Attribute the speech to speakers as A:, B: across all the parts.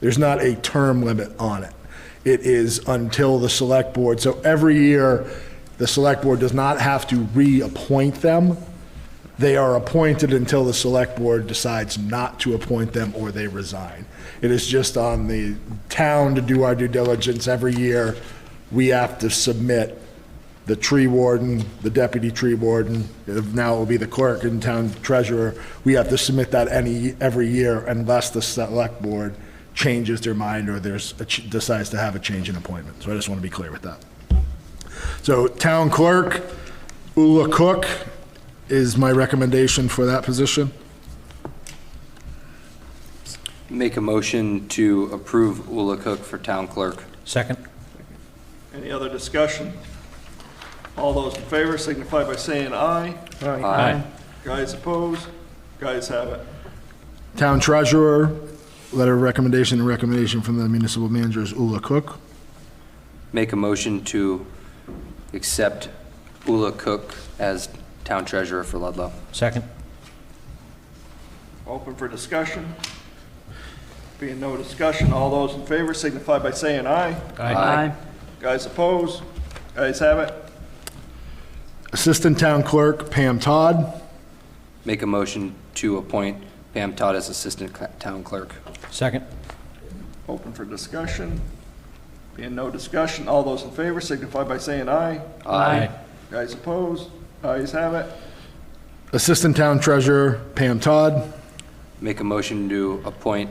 A: There's not a term limit on it. It is until the select board, so every year, the select board does not have to reappoint them. They are appointed until the select board decides not to appoint them or they resign. It is just on the town to do our due diligence. Every year, we have to submit the tree warden, the deputy tree warden, now it will be the clerk and town treasurer. We have to submit that any, every year unless the select board changes their mind or there's, a ch- decides to have a change in appointment. So I just want to be clear with that. So town clerk, Ula Cook is my recommendation for that position.
B: Make a motion to approve Ula Cook for town clerk.
C: Second?
D: Any other discussion? All those in favor signify by saying aye.
B: Aye.
D: Guys opposed? Guys have it.
A: Town treasurer, letter of recommendation and recommendation from the municipal manager is Ula Cook.
B: Make a motion to accept Ula Cook as town treasurer for Ludlow.
C: Second?
D: Open for discussion. Being no discussion, all those in favor signify by saying aye.
B: Aye.
D: Guys opposed? Guys have it.
A: Assistant town clerk Pam Todd.
B: Make a motion to appoint Pam Todd as assistant cl- town clerk.
C: Second?
D: Open for discussion. Being no discussion, all those in favor signify by saying aye. Guys opposed? Guys have it.
A: Assistant Town Treasurer Pam Todd.
B: Make a motion to appoint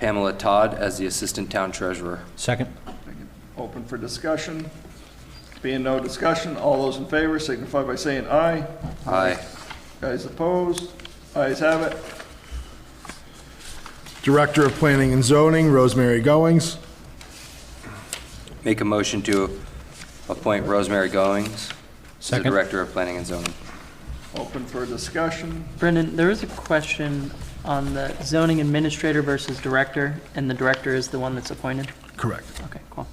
B: Pamela Todd as the assistant town treasurer.
C: Second?
D: Open for discussion. Being no discussion, all those in favor signify by saying aye.
B: Aye.
D: Guys opposed? Ayes have it.
A: Director of Planning and Zoning Rosemary Goings.
B: Make a motion to appoint Rosemary Goings as the
C: Second.
B: director of planning and zoning.
D: Open for discussion.
E: Brendan, there is a question on the zoning administrator versus director, and the director is the one that's appointed?
A: Correct.
E: Okay, cool.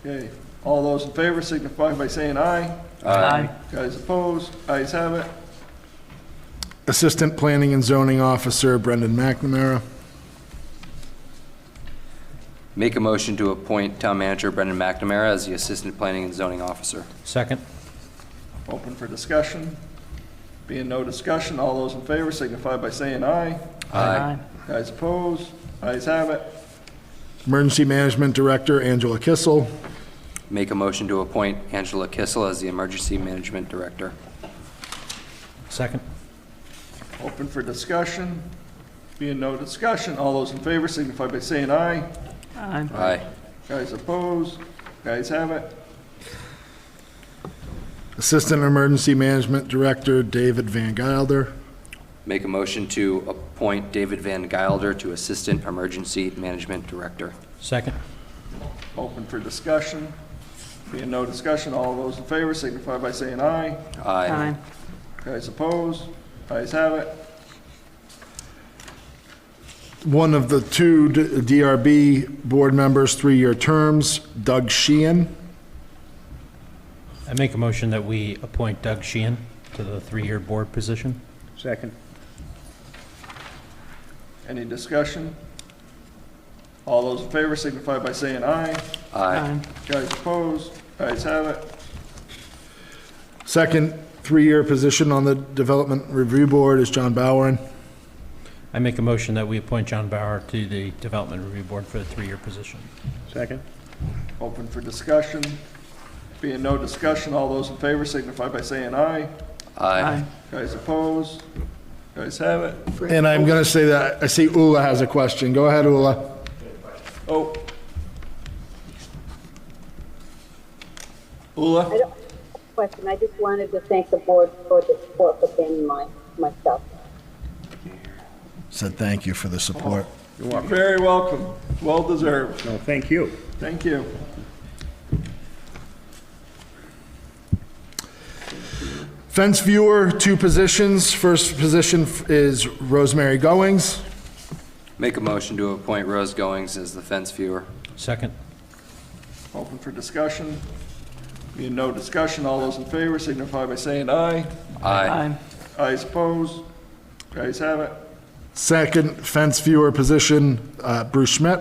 D: Okay, all those in favor signify by saying aye.
E: Aye.
D: Guys opposed? Ayes have it.
A: Assistant Planning and Zoning Officer Brendan McNamara.
B: Make a motion to appoint town manager Brendan McNamara as the assistant planning and zoning officer.
C: Second?
D: Open for discussion. Being no discussion, all those in favor signify by saying aye. Guys opposed? Ayes have it.
A: Emergency Management Director Angela Kissel.
B: Make a motion to appoint Angela Kissel as the emergency management director.
C: Second?
D: Open for discussion. Being no discussion, all those in favor signify by saying aye.
E: Aye.
B: Aye.
D: Guys opposed? Guys have it.
A: Assistant Emergency Management Director David Van Gilder.
B: Make a motion to appoint David Van Gilder to assistant emergency management director.
C: Second?
D: Open for discussion. Being no discussion, all those in favor signify by saying aye.
B: Aye.
D: Guys opposed? Ayes have it.
A: One of the two D- DRB board members, three-year terms, Doug Sheehan.
C: I make a motion that we appoint Doug Sheehan to the three-year board position.
F: Second.
D: Any discussion? All those in favor signify by saying aye.
B: Aye.
D: Guys opposed? Ayes have it.
A: Second three-year position on the Development Review Board is John Bowen.
C: I make a motion that we appoint John Bauer to the Development Review Board for the three-year position.
F: Second.
D: Open for discussion. Being no discussion, all those in favor signify by saying aye.
B: Aye.
D: Guys opposed? Guys have it.
A: And I'm going to say that, I see Ula has a question. Go ahead, Ula.
D: Oh. Ula?
G: I don't have a question, I just wanted to thank the board for the support within my, myself.
A: said thank you for the support.
D: You're very welcome. Well deserved.
F: No, thank you.
D: Thank you.
A: Fence viewer, two positions. First position f- is Rosemary Goings.
B: Make a motion to appoint Rose Goings as the fence viewer.
C: Second?
D: Open for discussion. Being no discussion, all those in favor signify by saying aye.
B: Aye.
E: Aye.
D: Ayes opposed? Ayes have it.
A: Second fence viewer position, uh, Bruce Schmidt.